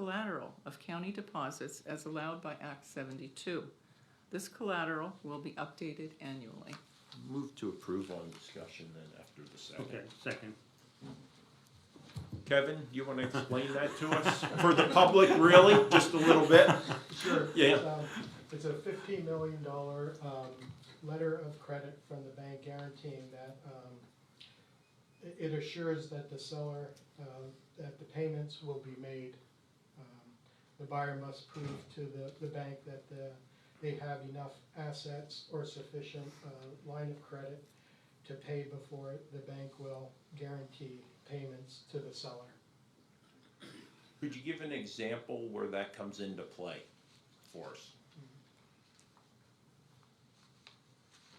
collateral of county deposits as allowed by Act seventy-two. This collateral will be updated annually. Move to approve on discussion then after the second. Okay, second. Kevin, you wanna explain that to us, for the public, really, just a little bit? Sure. Yeah. Um, It's a fifteen million dollar, um, letter of credit from the bank guaranteeing that, um, i- it assures that the seller, um, that the payments will be made. Um, The buyer must prove to the, the bank that the, they have enough assets or sufficient, uh, line of credit to pay before the bank will guarantee payments to the seller. Could you give an example where that comes into play for us?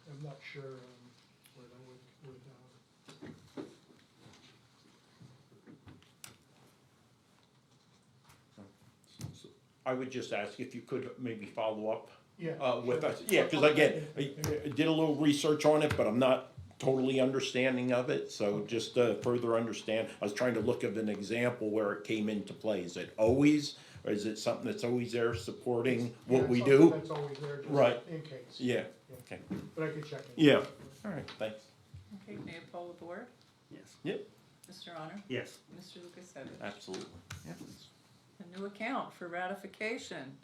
I'm not sure, um, where that would, would, uh, I would just ask if you could maybe follow up Yeah. uh, with sure. us, yeah, cause again, I I did a little research on it, but I'm not totally understanding of it, so just to further understand, I was trying to look of an example where it came into play, is it always, or is it something that's always there supporting Yeah, what we that's al- do? That's always there, Right. just in case, Yeah, okay, but I could check it. yeah, alright, thanks. Okay, may I poll the board? Yes. Mr. Honor? Yes. Mr. Lukasevich? Absolutely. A new account for ratification.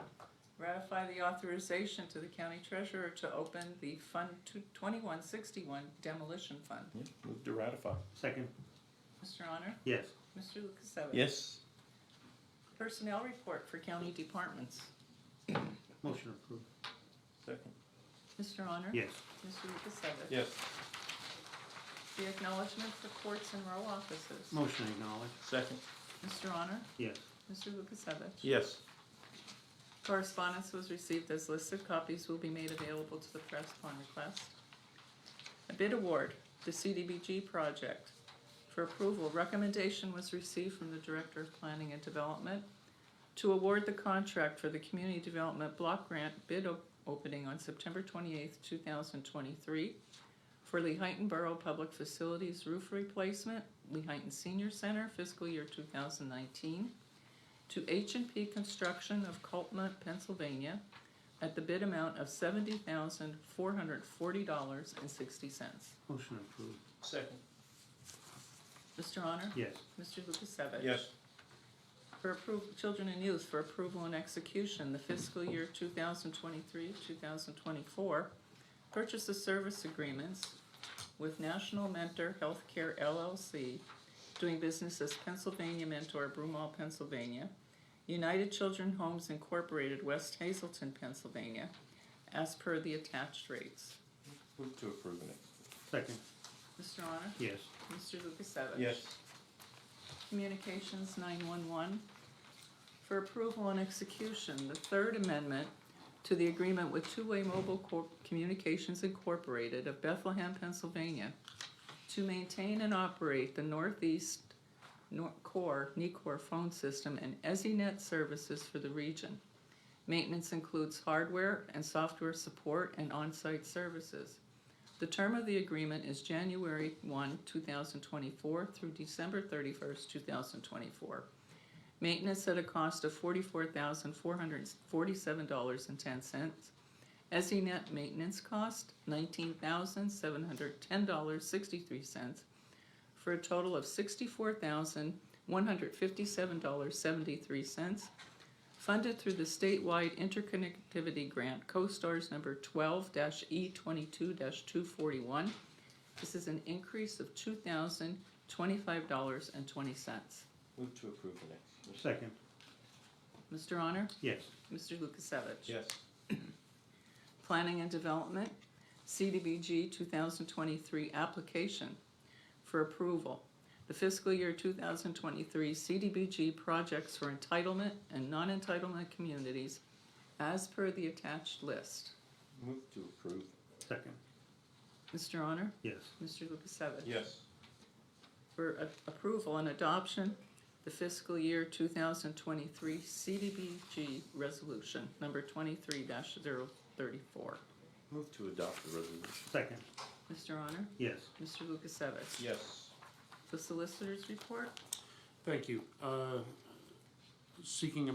Ratify the authorization to the county treasurer to open the Fund twenty-one sixty-one demolition fund. Yeah, move to ratify. Second. Mr. Honor? Yes. Mr. Lukasevich? Yes, Personnel report for county departments. Motion approved. second. Mr. Honor? Yes. Mr. Lukasevich? Yes, The acknowledgement for courts and row offices. Motion acknowledged. second. Mr. Honor? Yes. Mr. Lukasevich? Yes, Correspondence was received as listed. Copies will be made available to the press upon request. A bid award, the CDBG project. For approval, recommendation was received from the Director of Planning and Development to award the contract for the Community Development Block Grant bid op- opening on September twenty-eighth, two thousand twenty-three for Lehighton Borough Public Facilities Roof Replacement, Lehighton Senior Center, fiscal year two thousand nineteen to H and P Construction of Coltmont, Pennsylvania, at the bid amount of seventy thousand four hundred forty dollars and sixty cents. Motion approved. second. Mr. Honor? Yes. Mr. Lukasevich? Yes, For approval, children and youth, for approval and execution, the fiscal year two thousand twenty-three, two thousand twenty-four, purchase of service agreements with National Mentor Healthcare LLC, doing business as Pennsylvania Mentor, Broomall, Pennsylvania, United Children Homes Incorporated, West Hazelton, Pennsylvania, as per the attached rates. move to approving it. Second. Mr. Honor? Yes. Mr. Lukasevich? Yes, Communications 911 for approval and execution, the Third Amendment to the agreement with Two Way Mobile Corp- Communications Incorporated of Bethlehem, Pennsylvania, to maintain and operate the Northeast Nor- Core, NECOR phone system and EZNet services for the region. Maintenance includes hardware and software support and on-site services. The term of the agreement is January 1, 2024 through December 31, 2024. Maintenance at a cost of $44,447.10. EZNet E maintenance cost $19,710.63 for a total of $64,157.73 funded through the statewide interconnectivity grant, CoStar's number twelve E twenty-two two forty-one. This is an increase of two thousand twenty-five dollars and twenty cents. move to approve and execute. Second. Mr. Honor? Yes. Mr. Lukasevich? Yes, Planning and Development, CDBG 2023 application for approval. The fiscal year 2023 CDBG projects for entitlement and non-entitlement communities as per the attached list. move to approve. Second. Mr. Honor? Yes. Mr. Lukasevich? Yes, For a- approval and adoption, the fiscal year 2023 CDBG resolution, number 23-034. move to adopt the resolution. Second. Mr. Honor? Yes. Mr. Lukasevich? Yes, The solicitors report? Thank you. Uh, seeking a